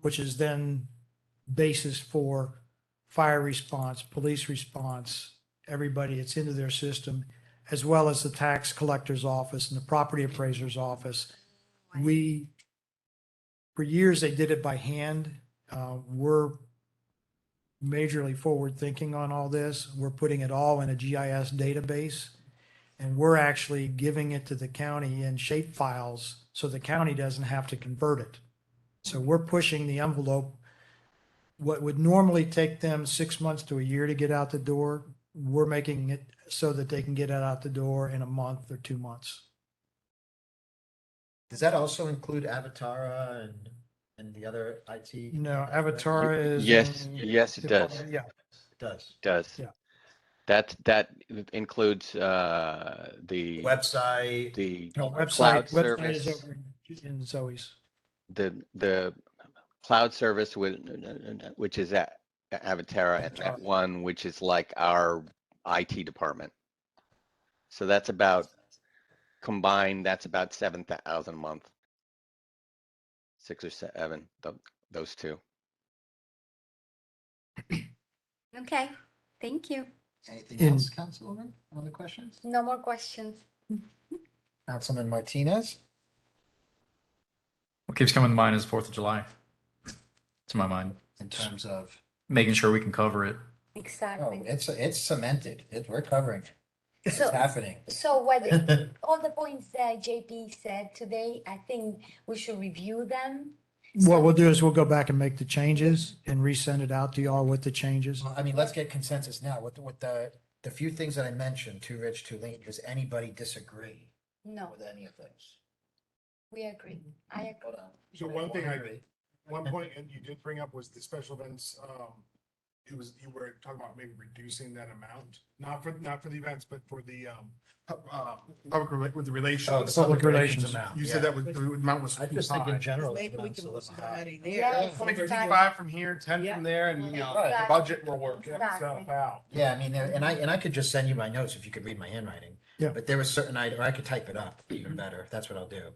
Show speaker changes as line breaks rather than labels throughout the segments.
which is then basis for fire response, police response, everybody, it's into their system, as well as the tax collector's office and the property appraiser's office. We, for years, they did it by hand. Uh, We're majorly forward-thinking on all this. We're putting it all in a GIS database. And we're actually giving it to the county in shape files so the county doesn't have to convert it. So we're pushing the envelope. What would normally take them six months to a year to get out the door, we're making it so that they can get it out the door in a month or two months.
Does that also include Avatara and, and the other IT?
You know, Avatar is.
Yes,
in-
yes, it does,
Yeah,
It Does.
does.
Yeah.
That, that includes, uh, the,
Website,
the,
no, website,
Cloud
website is
service.
over in Zoe's.
the, the cloud service with, which is at Avatara and that
Avatara.
one, which is like our IT department. So that's about, combined, that's about seven thousand a month. Six or seven, tho- those two.
Okay, thank you.
anything
In-
else, Councilwoman? Other questions?
No more questions.
Councilman Martinez?
What keeps coming to mind is Fourth of July. To my mind,
In terms of,
making sure we can cover it.
oh,
Exactly.
it's, it's cemented, it, we're covering, it. it's
So-
happening.
So what, all the points that JP said today, I think we should review them.
What we'll do is we'll go back and make the changes and resend it out to y'all with the changes.
I mean, let's get consensus now, with, with the, the few things that I mentioned, too rich, too late, does anybody disagree
No,
with any of those?
we agree. I agree.
Hold on.
So one thing I-
agree.
One point and you did bring up was the special events, um, it was, you were talking about maybe reducing that amount, not for, not for the events, but for the, um, pu- uh, public rela- with the
Oh,
relations.
the public relations
relations.
amount.
You said
yeah.
that was, the amount was
I
too
just think in
high.
general.
Maybe we
it's
can
been
put
so high.
somebody
Yeah.
there.
it's
Like
like-
Thirty-five from here, ten
Yeah.
from there, and you know, the
Right.
budget will work itself
Exactly.
out.
Yeah, I mean, there- and I, and I could just send you my notes if you could read my handwriting.
Yeah.
But there was certain, I, or I could type it up even better. That's what I'll do.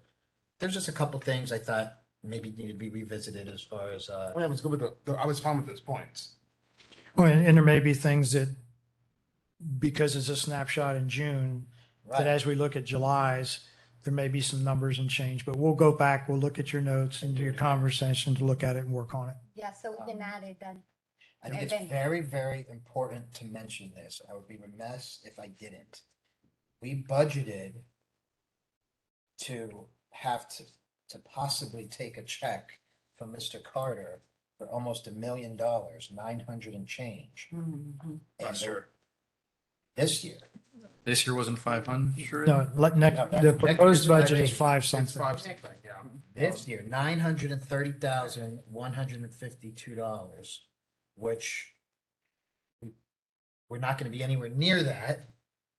There's just a couple things I thought maybe need to be revisited as far as, uh,
I mean, I was good with the- the, I was fine with those points.
Well, Oh, and and there may be things that, because it's a snapshot in June, that
right,
as we look at July's, there may be some numbers and change, but we'll go back, we'll look at your notes and do your conversation to look at it and work on it.
Yeah, so we can add it then.
I think it's
event.
very, very important to mention this. I would be remiss if I didn't. We budgeted to have to, to possibly take a check from Mr. Carter for almost a million dollars, nine hundred and change. And the- This year.
This year wasn't five hundred. Sure.
No, let,
No,
next,
that-
the
that-
proposed budget is
that's-
five
It's
something.
five, something, yeah.
This year, nine hundred and thirty thousand, one hundred and fifty-two dollars, which we- we're not gonna be anywhere near that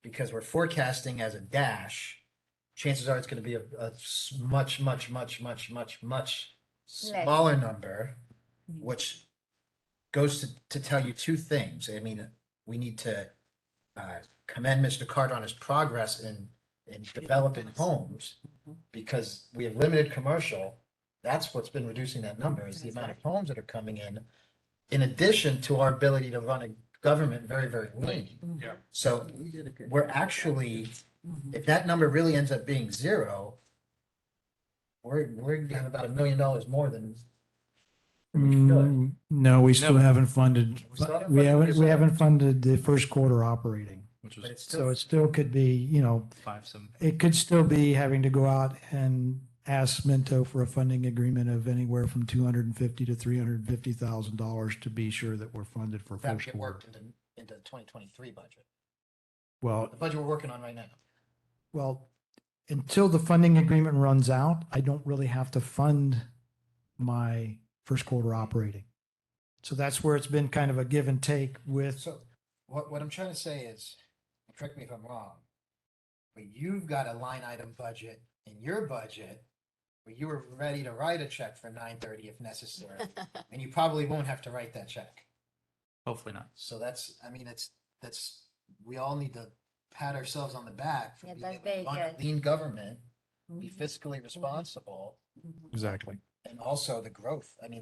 because we're forecasting as a dash. Chances are it's gonna be a, a s- much, much, much, much, much, much
Less.
smaller number, which goes to, to tell you two things. I mean, we need to uh, commend Mr. Card on his progress in, in developing homes because we have limited commercial. That's what's been reducing that number is the amount of homes that are coming in. In addition to our ability to run a government very, very lean.
Yeah.
So we're actually, if that number really ends up being zero, we're, we're gonna have about a million dollars more than,
Mm, No, we still
No.
haven't funded,
We still haven't
we
funded
haven't,
this
we
yet.
haven't funded the first quarter operating.
Which
but it's
was
So
still.
it still could be, you know,
five some.
it could still be having to go out and ask Minto for a funding agreement of anywhere from two hundred and fifty to three hundred and fifty thousand dollars to be sure that we're funded for
that would
first
get
quarter.
worked into, into the twenty twenty-three budget,
Well,
the budget we're working on right now.
well, until the funding agreement runs out, I don't really have to fund my first quarter operating. So that's where it's been kind of a give and take with,
So what, what I'm trying to say is, and correct me if I'm wrong, but you've got a line item budget in your budget where you were ready to write a check for nine thirty if necessary, and you probably won't have to write that check.
Hopefully not.
So that's, I mean, it's, that's, we all need to pat ourselves on the back for
Yeah,
being
that's
able to run
very
a
good. Mm-hmm.
lean government, be fiscally responsible,
exactly.
and also the growth. I mean,